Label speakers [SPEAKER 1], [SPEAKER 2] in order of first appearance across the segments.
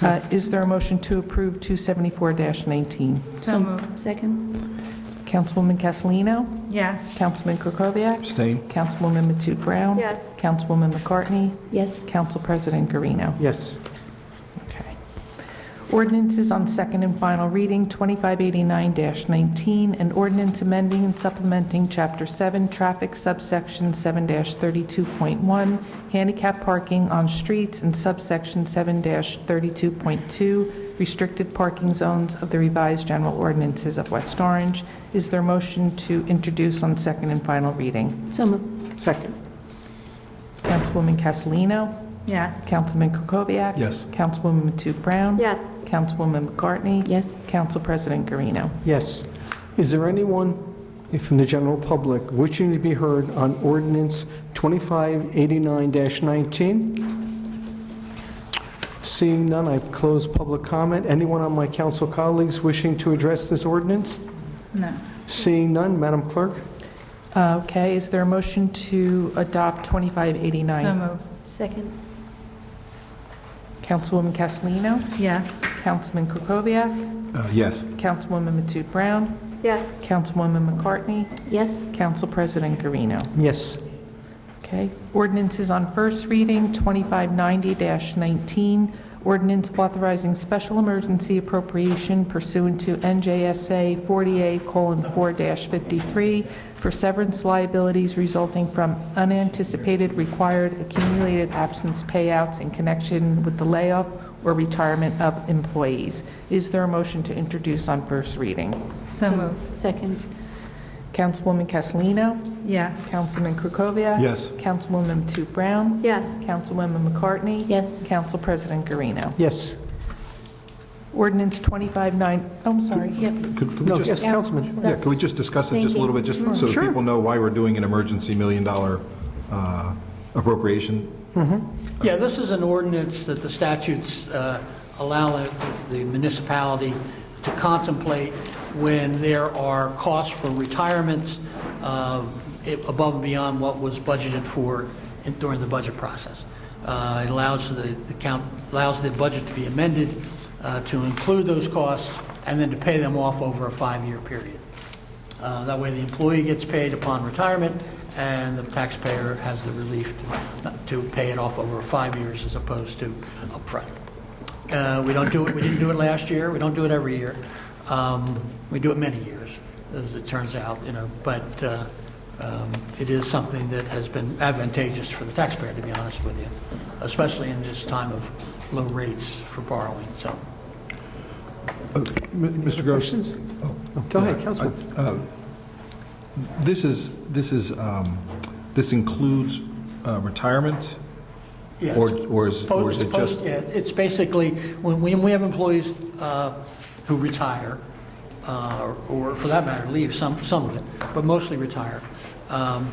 [SPEAKER 1] Uh, Is there a motion to approve 274-19?
[SPEAKER 2] So moved.
[SPEAKER 3] Second?
[SPEAKER 1] Councilwoman Castellino?
[SPEAKER 2] Yes.
[SPEAKER 1] Councilman Kukoviac?
[SPEAKER 4] Abstain.
[SPEAKER 1] Councilwoman Matute Brown?
[SPEAKER 3] Yes.
[SPEAKER 1] Councilwoman McCartney?
[SPEAKER 3] Yes.
[SPEAKER 1] Council President Garino.
[SPEAKER 5] yes,
[SPEAKER 1] Okay. Ordinances on second and final reading, 2589-19, an ordinance amending and supplementing Chapter 7, Traffic subsection 7-32.1, handicap parking on streets, and subsection 7-32.2, restricted parking zones of the revised general ordinances of West Orange. Is there a motion to introduce on second and final reading?
[SPEAKER 3] So moved.
[SPEAKER 5] second,
[SPEAKER 1] Councilwoman Castellino?
[SPEAKER 2] Yes.
[SPEAKER 1] Councilman Kukoviac?
[SPEAKER 4] Yes.
[SPEAKER 1] Councilwoman Matute Brown?
[SPEAKER 3] Yes.
[SPEAKER 1] Councilwoman McCartney?
[SPEAKER 3] Yes.
[SPEAKER 1] Council President Garino.
[SPEAKER 5] yes. Is there anyone from the general public wishing to be heard on ordinance 2589-19? Seeing none, I close public comment. Anyone on my council colleagues wishing to address this ordinance?
[SPEAKER 2] No.
[SPEAKER 5] Seeing none, Madam Clerk?
[SPEAKER 1] Uh, Okay, is there a motion to adopt
[SPEAKER 2] So
[SPEAKER 1] 2589?
[SPEAKER 2] moved.
[SPEAKER 3] Second?
[SPEAKER 1] Councilwoman Castellino?
[SPEAKER 2] Yes.
[SPEAKER 1] Councilman Kukoviac?
[SPEAKER 4] Uh, Yes.
[SPEAKER 1] Councilwoman Matute Brown?
[SPEAKER 3] Yes.
[SPEAKER 1] Councilwoman McCartney?
[SPEAKER 3] Yes.
[SPEAKER 1] Council President Garino.
[SPEAKER 5] Yes,
[SPEAKER 1] Okay. Ordinances on first reading, 2590-19, ordinance authorizing special emergency appropriation pursuant to NJSA 48:4-53 for severance liabilities resulting from unanticipated required accumulated absence payouts in connection with the layoff or retirement of employees. Is there a motion to introduce on first reading?
[SPEAKER 2] So moved.
[SPEAKER 3] Second?
[SPEAKER 1] Councilwoman Castellino?
[SPEAKER 2] Yes.
[SPEAKER 1] Councilman Krokoviac?
[SPEAKER 4] Yes.
[SPEAKER 1] Councilwoman Matute Brown?
[SPEAKER 3] Yes.
[SPEAKER 1] Councilwoman McCartney?
[SPEAKER 3] Yes.
[SPEAKER 1] Council President Garino.
[SPEAKER 5] yes.
[SPEAKER 1] Ordinance 259, oh, I'm sorry.
[SPEAKER 4] Could could
[SPEAKER 5] No,
[SPEAKER 4] we
[SPEAKER 5] yes,
[SPEAKER 4] just,
[SPEAKER 5] Councilman.
[SPEAKER 4] yeah, could we just discuss it
[SPEAKER 3] Thank
[SPEAKER 4] just a
[SPEAKER 3] you.
[SPEAKER 4] little bit, just so that people know why we're doing an emergency million-dollar uh, appropriation?
[SPEAKER 6] Yeah, this is an ordinance that the statutes uh, allow the- the municipality to contemplate when there are costs for retirements uh, i- above and beyond what was budgeted for in- during the budget process. Uh, It allows the the count, allows the budget to be amended uh, to include those costs and then to pay them off over a five-year period. Uh, That way, the employee gets paid upon retirement, and the taxpayer has the relief to to pay it off over five years as opposed to upfront. Uh, We don't do it, we didn't do it last year, we don't do it every year. Um, We do it many years, as it turns out, you know, but uh, um, it is something that has been advantageous for the taxpayer, to be honest with you, especially in this time of low rates for borrowing, so.
[SPEAKER 4] Mr. Gross?
[SPEAKER 5] Questions?
[SPEAKER 6] Oh.
[SPEAKER 5] Go ahead, Councilman.
[SPEAKER 4] This is, this is, um, this includes uh, retirement?
[SPEAKER 6] Yes.
[SPEAKER 4] Or or is or is
[SPEAKER 6] Post-
[SPEAKER 4] it just?
[SPEAKER 6] post- yeah, It's basically, when we we have employees uh, who retire, uh, or for that matter, leave, some some of it, but mostly retire, um,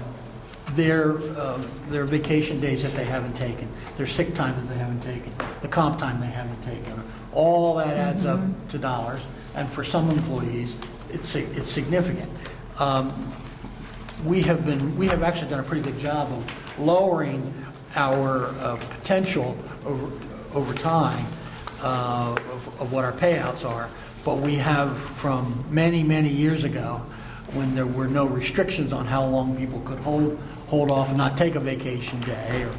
[SPEAKER 6] their uh, their vacation days that they haven't taken, their sick time that they haven't taken, the comp time they haven't taken, all that adds up to dollars, and for some employees, it's sig- it's significant. Um, we have been, we have actually done a pretty good job of lowering our uh, potential over over time uh, of of what our payouts are, but we have from many, many years ago, when there were no restrictions on how long people could hold, hold off and not take a vacation day, or,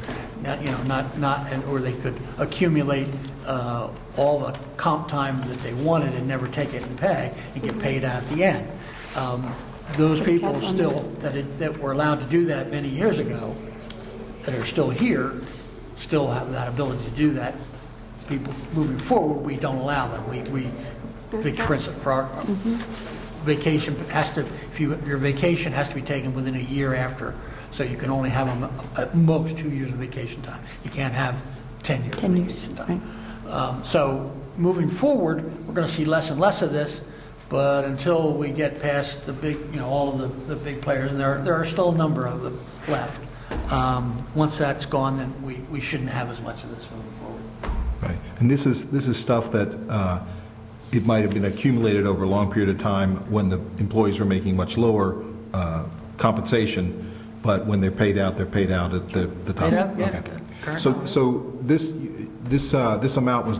[SPEAKER 6] not you know, not, not, and or they could accumulate uh, all the comp time that they wanted and never take it and pay, and get paid out at the end. Um,
[SPEAKER 3] Mm-hmm. Put a
[SPEAKER 6] Those
[SPEAKER 3] cap
[SPEAKER 6] people
[SPEAKER 3] on that.
[SPEAKER 6] still that, it- that were allowed to do that many years ago, that are still here, still have that ability to do that. People moving forward, we don't allow them. We, we, for instance, for our vacation has to, if you, your vacation has to be taken within a year after, so you can only have them at most two years of vacation time. You can't have 10 years of
[SPEAKER 3] 10 years,
[SPEAKER 6] vacation time. Um, So moving forward, we're going to see less and less of this, but until we get past the big, you know, all of the, the big players, and there, are- there are still a number of them left. um, Once that's gone, then we, we shouldn't have as much of this moving forward.
[SPEAKER 4] Right. And this is, this is stuff that uh, it might have been accumulated over a long period of time when the employees were making much lower uh, compensation, but when they're paid out, they're paid out at the the top.
[SPEAKER 6] Paid out, yeah.
[SPEAKER 4] Okay. So, so this, this, uh, this amount was